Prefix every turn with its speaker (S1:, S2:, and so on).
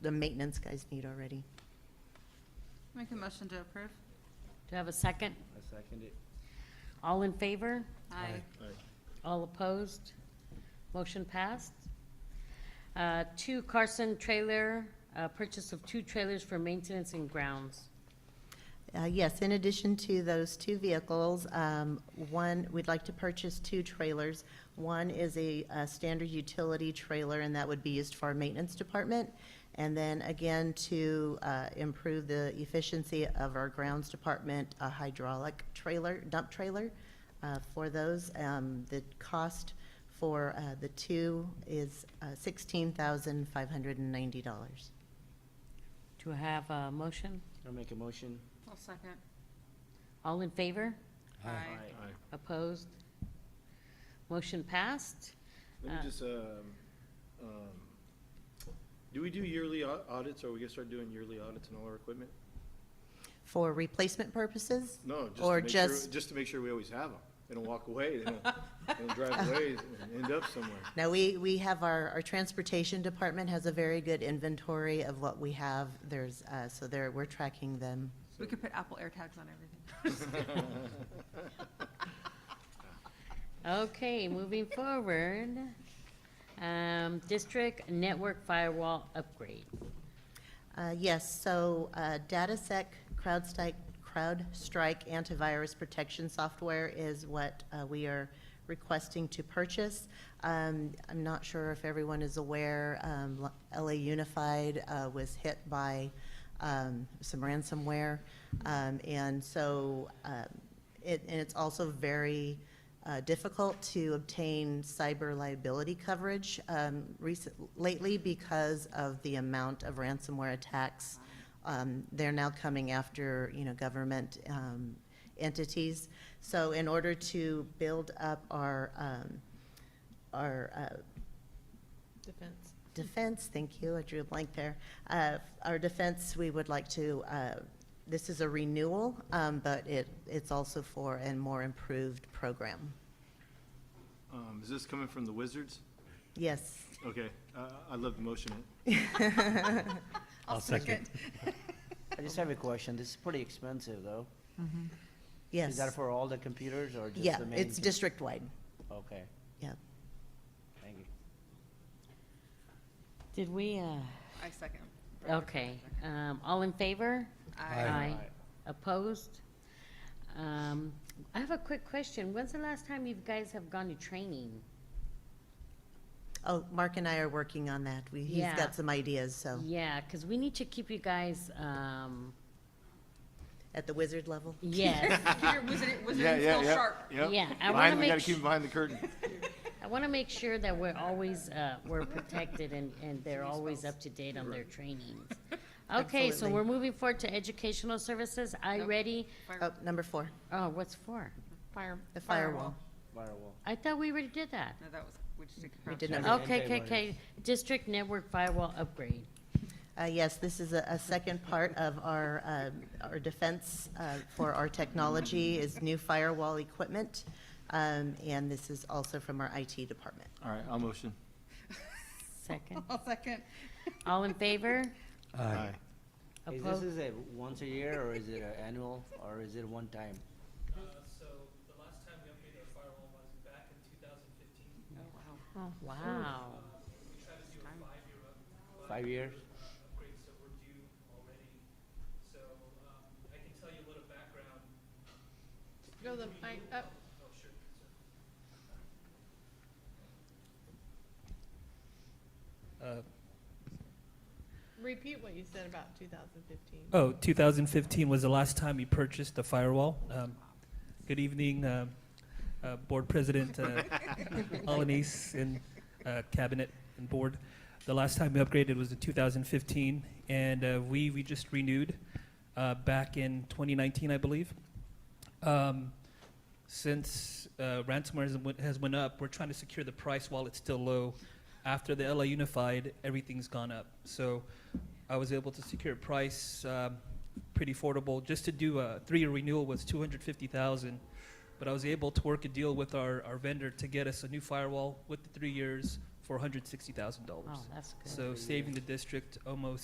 S1: the maintenance guys need already.
S2: Make a motion to approve.
S3: Do I have a second?
S4: I second it.
S3: All in favor?
S2: Aye.
S3: All opposed? Motion passed. Uh, Two Carson trailer, uh, purchase of two trailers for maintenance and grounds.
S1: Uh, Yes, in addition to those two vehicles, um, one, we'd like to purchase two trailers. One is a a standard utility trailer, and that would be used for our maintenance department. And then again, to uh, improve the efficiency of our grounds department, a hydraulic trailer, dump trailer uh, for those. Um, The cost for uh, the two is uh, $16,590.
S3: Do I have a motion?
S4: I'll make a motion.
S2: I'll second.
S3: All in favor?
S2: Aye.
S3: Opposed? Motion passed.
S5: Let me
S3: Uh,
S5: just, um, um, do we do yearly au- audits, or are we gonna start doing yearly audits on all our equipment?
S1: For replacement purposes?
S5: No, just
S1: Or
S5: to make sure,
S1: just-
S5: just to make sure we always have them. They don't walk away, they don't, they don't drive away and end up somewhere.
S1: Now, we, we have our, our transportation department has a very good inventory of what we have. There's, uh, so there, we're tracking them.
S2: We could put Apple AirTags on everything.
S3: Okay, moving forward. Um, District network firewall upgrade.
S1: Uh, Yes, so uh, DataSec CrowdStrike, CrowdStrike antivirus protection software is what uh, we are requesting to purchase. Um, I'm not sure if everyone is aware, um, LA Unified uh, was hit by um, some ransomware. Um, And so um, it, and it's also very uh, difficult to obtain cyber liability coverage um, recent, lately because of the amount of ransomware attacks. Um, They're now coming after, you know, government um, entities. So in order to build up our, um, our uh,
S6: Defense.
S1: Defense, thank you, I drew a blank there. Uh, Our defense, we would like to, uh, this is a renewal, um, but it, it's also for a more improved program.
S5: Um, is this coming from the Wizards?
S1: Yes,
S5: Okay, uh, I love the motion.
S2: I'll second.
S4: I just have a question. This is pretty expensive, though.
S1: yes.
S4: Is that for all the computers or just
S1: Yeah,
S4: the main?
S1: it's
S4: com-
S1: district-wide,
S4: Okay,
S1: yeah.
S4: thank you.
S3: Did we, uh,
S2: I second.
S3: okay, um, all in favor?
S2: Aye.
S3: Opposed? Um, I have a quick question. When's the last time you guys have gone to training?
S1: Oh, Mark and I are working on that. We, he's
S3: Yeah.
S1: got some ideas, so,
S3: Yeah, because we need to keep you guys, um,
S1: at the wizard level.
S3: yes,
S2: Your wizard, wizarding skill sharp.
S3: Yeah, I wanna Behind- we make gotta keep sh-
S5: behind the curtain.
S3: I want to make sure that we're always, uh, we're protected and, and they're always up to date on their trainings. Okay, so
S1: Absolutely.
S3: we're moving forward to educational services. I
S2: Nope.
S3: ready?
S1: Oh, number four,
S3: Oh, what's for?
S6: Fire.
S1: the firewall.
S4: Firewall.
S3: I thought we already did that.
S2: No, that was, we just did.
S1: We did
S2: Crouch.
S1: not
S3: Okay,
S4: Okay,
S3: okay,
S4: what
S3: okay. District network firewall upgrade.
S1: Uh, Yes, this is a a second part of our, um, our defense uh, for our technology is new firewall equipment. Um, And this is also from our IT department.
S5: All right, I'll motion.
S3: Second.
S2: I'll second.
S3: All in favor?
S5: Aye.
S4: Is
S3: Opposed?
S4: this is a once a year or is it an annual or is it one time?
S7: Uh, so the last time we updated our firewall was back in 2015.
S2: Oh, wow.
S3: Wow.
S7: We tried to do a five-year up-
S4: Five years?
S7: upgrade, so we're due already. So um, I can tell you a little background.
S6: Go the uh, mic up.
S7: Oh, sure. So
S6: Repeat what you said about 2015.
S7: Oh, 2015 was the last time you purchased the firewall. Um, Good evening, uh, uh, Board President uh, Alanis and uh, Cabinet and Board. The last time we upgraded was in 2015, and uh, we, we just renewed uh, back in 2019, I believe. Um, Since uh, ransomware has went- has went up, we're trying to secure the price while it's still low. After the LA Unified, everything's gone up. So I was able to secure a price um, pretty affordable. Just to do a three-year renewal was two hundred fifty thousand, but I was able to work a deal with our, our vendor to get us a new firewall with the three years for one hundred sixty thousand dollars.
S3: Oh, that's good.
S7: So saving the district almost